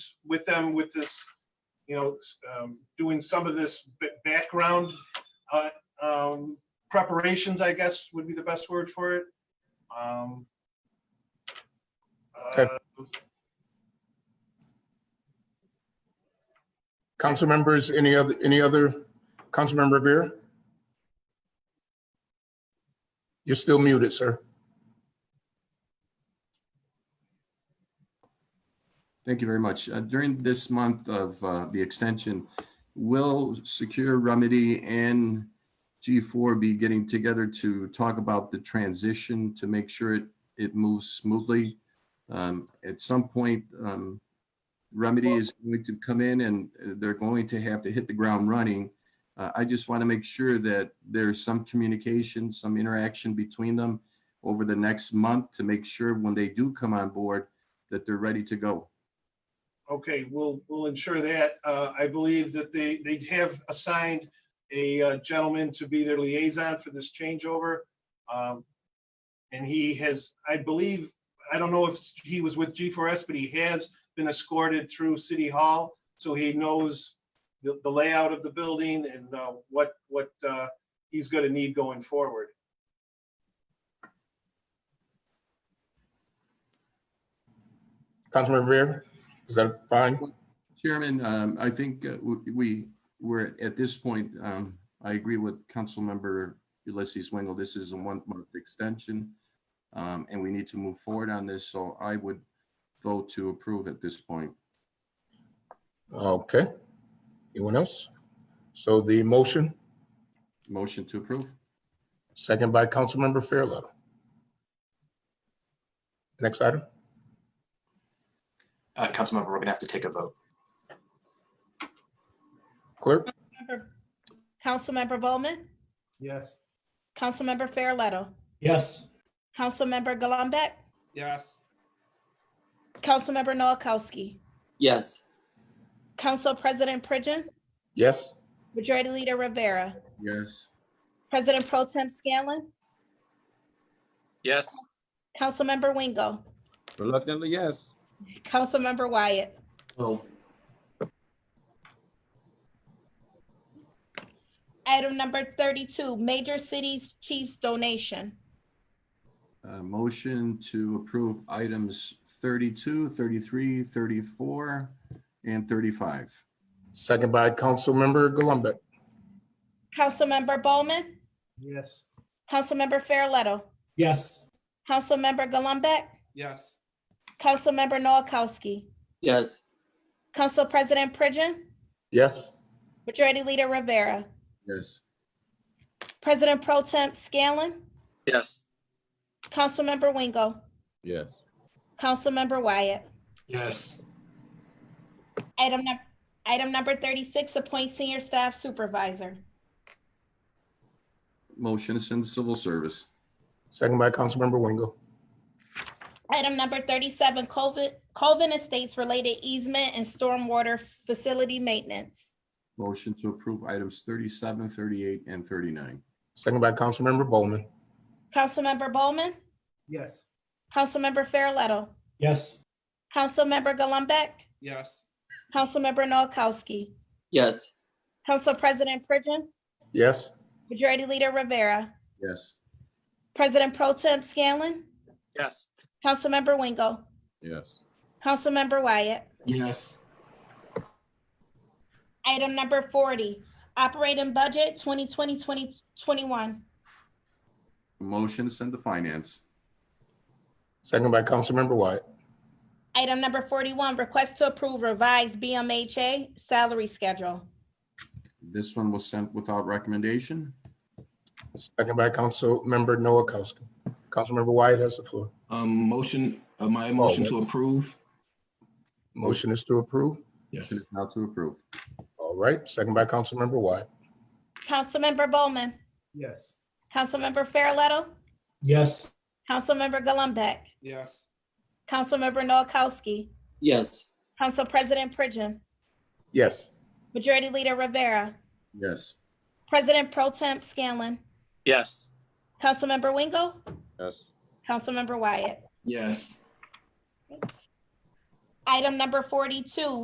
with them with this, you know, s- um, doing some of this b- background uh, um, preparations, I guess, would be the best word for it. Um, Okay. uh, Council members, any other, any other, Councilmember Revere? You're still muted, sir. Thank you very much. Uh, During this month of uh, the extension, will Secure Remedy and G4 be getting together to talk about the transition to make sure it, it moves smoothly? Um, At some point, um, Remedy is going to come in and uh, they're going to have to hit the ground running. Uh, I just want to make sure that there's some communication, some interaction between them over the next month to make sure when they do come on board, that they're ready to go. Okay, we'll, we'll ensure that. Uh, I believe that they, they have assigned a uh, gentleman to be their liaison for this changeover. Um, And he has, I believe, I don't know if he was with G4S, but he has been escorted through City Hall. So he knows the, the layout of the building and uh, what, what uh, he's gonna need going forward. Councilmember Revere, is that fine? Chairman, um, I think uh, w- we, we're at this point, um, I agree with Councilmember Ulysses Wingo. This is a one-month extension. um, And we need to move forward on this, so I would vote to approve at this point. Okay. Anyone else? So the motion, Motion to approve? second by Councilmember Fairwell. Next item. Uh, Councilmember, we're gonna have to take a vote. Clerk, Member- Councilmember Bowman, Yes. Councilmember Farrelletto, Yes. Councilmember Gullumbeck, Yes. Councilmember Noakowski, Yes. Council President Pridgen, yes? Majority Leader Rivera, Yes. President Pro Tem Scanlon, Yes. Councilmember Wingo, Reluctantly, yes. Councilmember Wyatt, Oh. Item number thirty-two, Major Cities Chiefs Donation. Uh, Motion to approve items 32, 33, 34, and 35. Second by Councilmember Gullumbeck. Councilmember Bowman, Yes. Councilmember Farrelletto, Yes. Councilmember Gullumbeck, Yes. Councilmember Noakowski, Yes. Council President Pridgen, Yes? Majority Leader Rivera, Yes. President Pro Temp Scanlon, Yes. Councilmember Wingo, Yes. Councilmember Wyatt. Yes. Item number, item number thirty-six, appoint senior staff supervisor. Motion to send to civil service. Second by Councilmember Wingo. Item number thirty-seven, Colvin, Colvin Estates related easement and stormwater facility maintenance. Motion to approve items 37, 38, and 39. Second by Councilmember Bowman. Councilmember Bowman, Yes. Councilmember Farrelletto, Yes. Councilmember Gullumbeck, Yes. Councilmember Noakowski, Yes. Council President Pridgen, Yes? Majority Leader Rivera, Yes. President Pro Temp Scanlon, Yes. Councilmember Wingo, Yes. Councilmember Wyatt. Yes. Item number forty, operating budget 2020 2021. Motion to send to finance. Second by Councilmember Wyatt. Item number forty-one, request to approve revised BMHA salary schedule. This one was sent without recommendation. Second by Councilmember Noakowski. Councilmember Wyatt has the floor. Um, motion, uh, my motion wait. to approve? Motion is to approve. Yes. Motion is now to approve. All right, second by Councilmember Wyatt. Councilmember Bowman, Yes. Councilmember Farrelletto, Yes. Councilmember Gullumbeck, Yes. Councilmember Noakowski, Yes. Council President Pridgen, Yes. Majority Leader Rivera, Yes. President Pro Temp Scanlon, Yes. Councilmember Wingo, Yes. Councilmember Wyatt. Yes. Item number forty-two,